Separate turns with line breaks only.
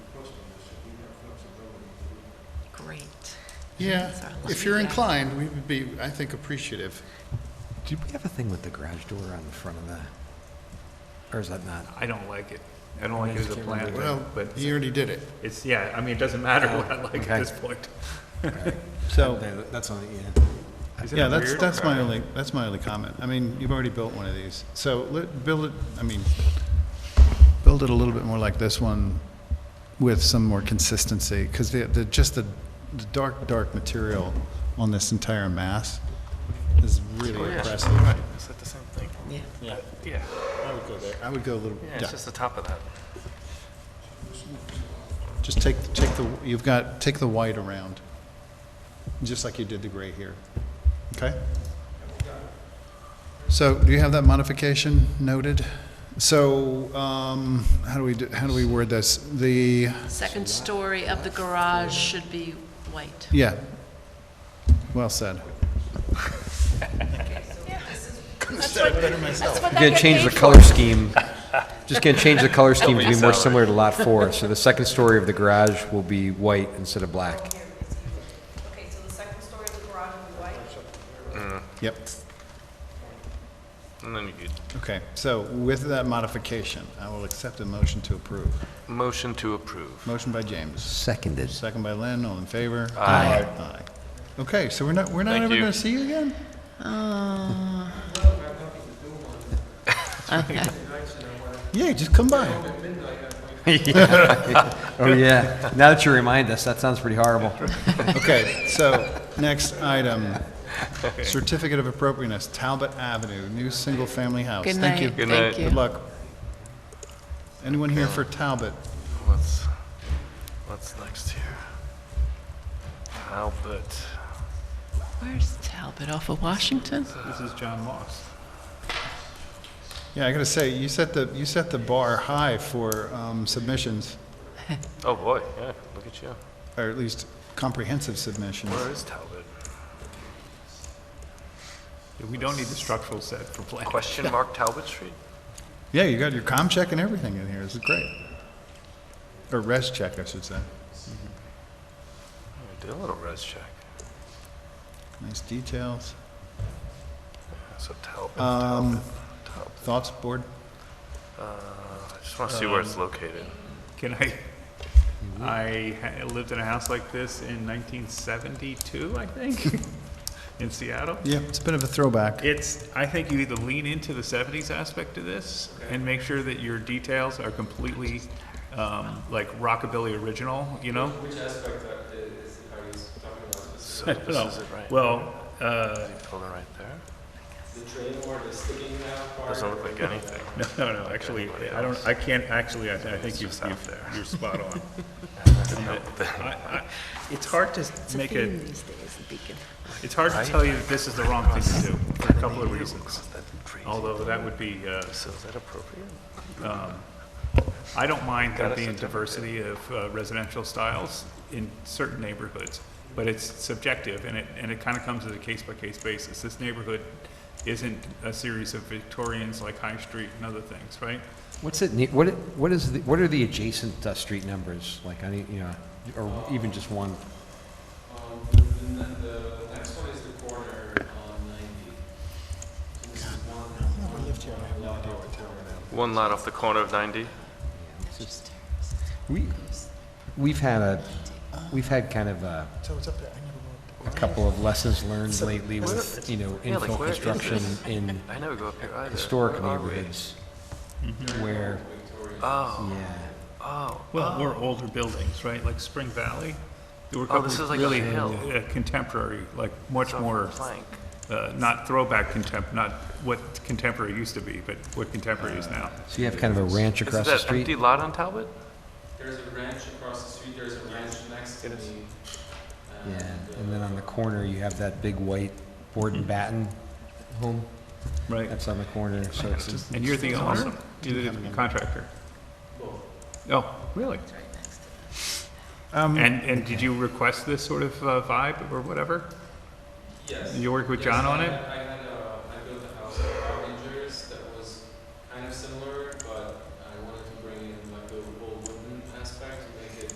Yeah,
Sorry, let
if
me
you're
back.
inclined, we would be, I think, appreciative.
Did we have a thing with the garage door on the front of the, or is that not?
I don't like it. I don't like it as a plan,
Well,
but
you already did it.
it's, yeah, I mean, it doesn't matter what I like
Okay.
at this point.
So,
Yeah, That's on the, yeah.
Isn't it
yeah, that's,
weird?
that's my
Okay.
only, that's my only comment. I mean, you've already built one of these. So let, build it, I mean, build it a little bit more like this one with some more consistency, because the, the, just the, the dark, dark material on this entire mass is really impressive.
Is that the same thing?
Yeah.
Yeah,
I would go there. I would go a little,
yeah,
yeah.
it's just the top of that.
Just take, take the, you've got, take the white around, just like you did the gray here. Okay? So do you have that modification noted? So, um, how do we, do- how do we word this? The,
Second story of the garage should be white.
yeah. Well said.
Gonna change the color scheme, just gonna change the color scheme to be more similar to lot four. So the second story of the garage will be white instead of black.
Okay, so the second story of the garage will be white?
Yep.
And then you
Okay, so with that modification, I will accept a motion to approve.
motion to approve.
Motion by James,
Seconded.
second by Lynn, all in favor? Aye. Aye. Okay, so we're not, we're not
Thank
ever
you.
gonna see you again?
Okay.
Yeah, just come by.
Oh, yeah. Now that you remind us, that sounds pretty horrible.
Okay, so, next item, certificate of appropriateness, Talbot Avenue, new single-family house.
Good
Thank you.
night, thank
Good
you.
luck. Anyone here for Talbot?
What's, what's next here? Albert.
Where's Talbot, off of Washington?
This is John Moss.
Yeah, I gotta say, you set the, you set the bar high for um, submissions,
Oh, boy, yeah, look at you.
or at least comprehensive submissions.
Where is Talbot?
We don't need the structural set for plan.
Question mark Talbot Street?
Yeah, you got your com check and everything in here, this is great. Or res check, I should say.
Oh, I Did a little res check.
Nice details.
So Talbot,
Um,
Talbot, Talbot.
Thoughts, board?
Uh, I just want to see where it's located.
Can I, I ha- lived in a house like this in 1972, I think, in Seattle.
Yeah, it's a bit of a throwback.
It's, I think you either lean into the 70s aspect of this and make sure that your details are completely um, like rockabilly original, you know? Which aspect is, are you talking about
This is it, right?
Well, uh,
Hold it right there. The train or the sticking out part? Doesn't look like anything.
no, no, no, actually, I don't, I can't, actually, I I think you've,
just out
you've-
there.
you're spot on. I- I- It's hard to make a,
These days, the beacon.
it's hard to tell you that this is the wrong thing to do for a couple of reasons.
Is that crazy?
Although that would be uh,
So is that appropriate?
I don't mind
Got
there
a
being
certificate.
diversity of uh, residential styles in certain neighborhoods, but it's subjective, and it, and it kind of comes as a case-by-case basis. This neighborhood isn't a series of Victorians like High Street and other things, right?
What's it, ne- what, it- what is, the- what are the adjacent uh, street numbers? Like, I need, you know, or even just one?
Um, the, ne- the next one is the corner on ninety. So This is one.
One lot off the corner of 90?
We, we've had a, we've had kind of a, a couple of lessons learned lately with, you know,
Yeah, like,
infill
where is
construction
this?
in
I never go up here either.
historic
Where are we?
neighborhoods where,
Oh,
yeah,
oh,
Well, or older buildings, right, like Spring Valley? There were a
Oh,
couple
this is like a
really
hill.
uh, contemporary, like much
it's off
more,
the plank.
uh, not throwback contemp, not what contemporary used to be, but what contemporary is now.
so you have kind of a ranch
Is
across the
that empty
street.
lot on Talbot?
There's a ranch across the street, there's a ranch next to me.
Yeah, and then on the corner, you have that big white board and batten home
Right.
that's on the corner, so it's just
And you're the owner? You're the contractor? Oh, really?
Um,
And, and did you request this sort of uh, vibe or whatever?
Yes.
You worked with
Yes,
John on
I-
it?
I